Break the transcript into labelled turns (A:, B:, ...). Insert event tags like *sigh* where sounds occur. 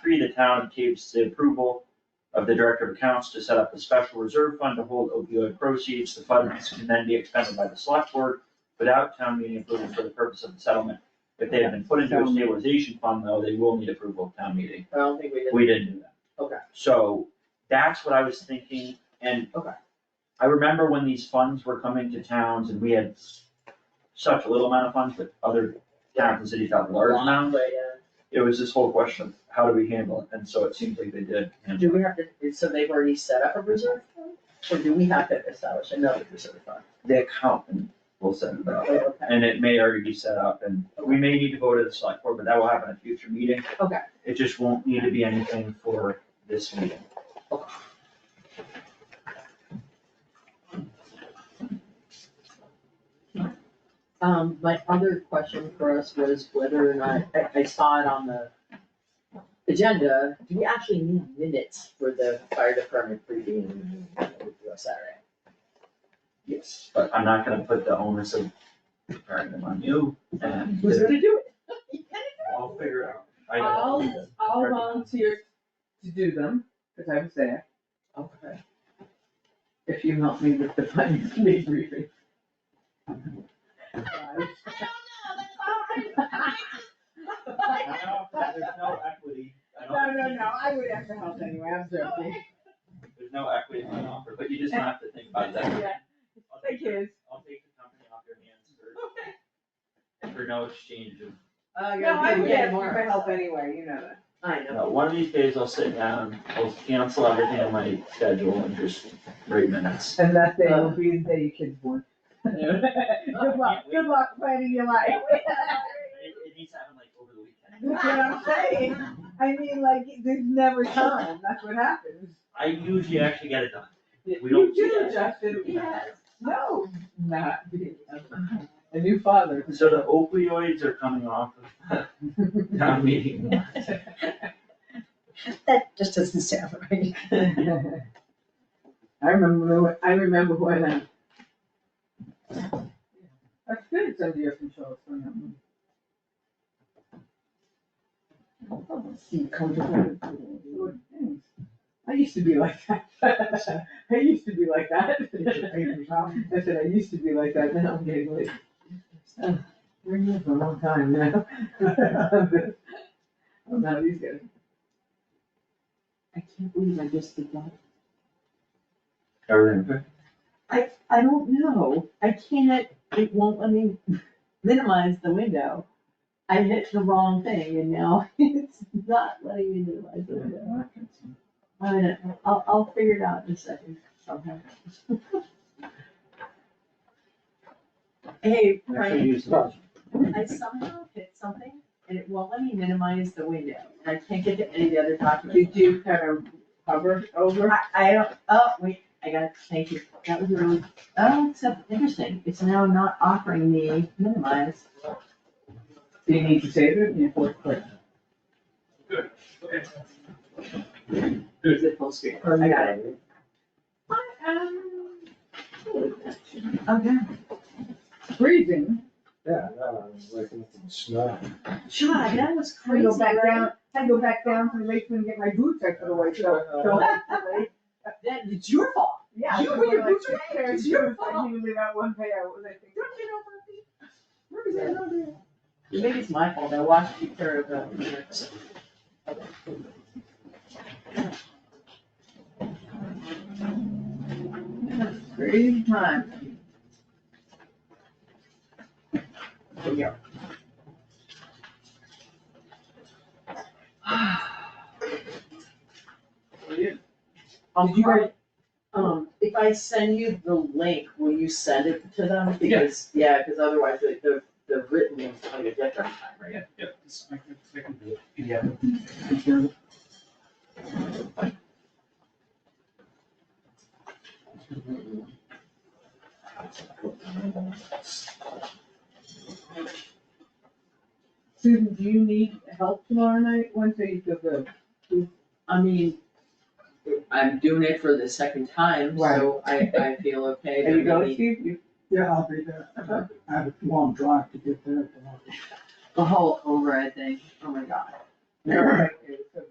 A: three, the town takes the approval of the Director of Accounts to set up a special reserve fund to hold opioid proceeds. The funds can then be expended by the select board without town meeting approval for the purpose of the settlement. If they have been put into a stabilization fund though, they will need approval of town meeting.
B: I don't think we did.
A: We didn't do that.
B: Okay.
A: So that's what I was thinking and.
B: Okay.
A: I remember when these funds were coming to towns and we had s- such a little amount of funds, but other towns and cities had large amounts.
B: But, uh, yeah.
A: It was this whole question of how do we handle it? And so it seems like they did. handle
B: Do we have to, so they've already set up a reserve fund? Or do we have to establish another reserve fund?
A: the accountant will set it up.
B: Okay.
A: And it may already be set up and we may need to go to the select board, but that will happen at a future meeting.
B: Okay.
A: It just won't need to be anything for this meeting.
B: Um, my other question for us was whether or not, I, I saw it on the agenda, do we actually need minutes for the fire department briefing on Saturday?
A: Yes. But I'm not gonna put the onus of preparing them on you and
B: Who's gonna do it?
A: I'll figure it out. I
C: I'll,
A: don't know.
C: I'll volunteer to do them, because I was there,
B: Okay,
C: if you help me with the finance committee briefing. *laughs*
A: No, There's no equity. I
C: No,
A: don't-
C: no, no, I would have to help anyway, I'm joking.
A: There's no equity in my offer, but you just have to think about that.
C: Yeah,
A: I'll
C: thank
A: take your-
C: you.
A: I'll take the company off your hands for, for no exchange of
C: No, I would
B: Uh, Yeah,
C: ask you for
B: tomorrow.
C: help anyway, you know that.
B: I know.
A: No, one of these days I'll sit down, I'll cancel everything on my schedule and just write minutes.
C: And that day will be the day your kids born. Good luck, good luck planning your life.
A: It, it needs to happen like over the
C: You know
A: weekend.
C: what I'm saying? I mean, like, there's never time, that's what happens.
A: I usually actually get it done. We
C: You
A: don't
C: do,
A: do
C: Justin,
A: that.
C: no, not, a new father.
A: So the opioids are coming off of *laughs* town meeting.
C: *laughs*
B: That just doesn't sound *laughs* right.
C: I remember, *laughs* I remember when uh, I. That's good, it's under your control, so, um,
B: You comfortable?
C: good things. I used to be like that. *laughs* I used to be like that. I said, I used to be like that, now I'm getting like. uh, We're here for a long time now. *laughs* I'm not these guys. I can't believe I just did that.
A: Everything.
C: I don't know, I can't, it won't let me *laughs* minimize the window. I hit the wrong thing and now *laughs* it's not letting me minimize the window. I don't know. I'll, I'll figure it out in a second somehow. *laughs*
B: Hey,
A: I
B: Frank,
A: should use those.
B: I somehow hit something and it won't let me minimize the window and I can't get to any of the other documents.
C: you kind of hover over?
B: I, I don't, oh, wait, I got it, thank you. That was really, oh, except, interesting, it's now not offering me minimize.
C: Do you need to save it? Yeah, fourth click.
B: Is it full
C: Oh,
B: screen? I got it. Okay.
C: Freezing.
D: Yeah, no, I'm looking at the snow.
B: Shy, that was
C: I had to
B: crazy,
C: go back
B: right?
C: down, I had to go back down to the Lakeland and get my boots I put away, *laughs* so. so-
B: That, it's your fault.
C: Yeah.
B: You
C: I
B: put your
C: like
B: boots away?
C: two pairs,
B: It's your
C: because I
B: fault.
C: knew they got one pair, was I think.
B: Don't you know about me? Where is that on there? Maybe it's my fault, I watched you care about.
C: Crazy time. *sighs* Did you guys-
B: Um, if I send you the link, will you send it to them? Because, yeah, because otherwise the, the, the written one's gonna get different time, right?
D: Yeah, yeah.
A: Yeah.
C: Susan, do you need help tomorrow night, Wednesday, you feel good?
B: I mean, I'm doing it for the second time, so I, I feel okay.
C: There you
B: but
C: go,
B: maybe-
C: Steve, you,
E: Yeah, I'll be there. I have- I have a long drive to get there. but I'll be-
B: The whole over, I think, oh my god.
C: you're right, it was so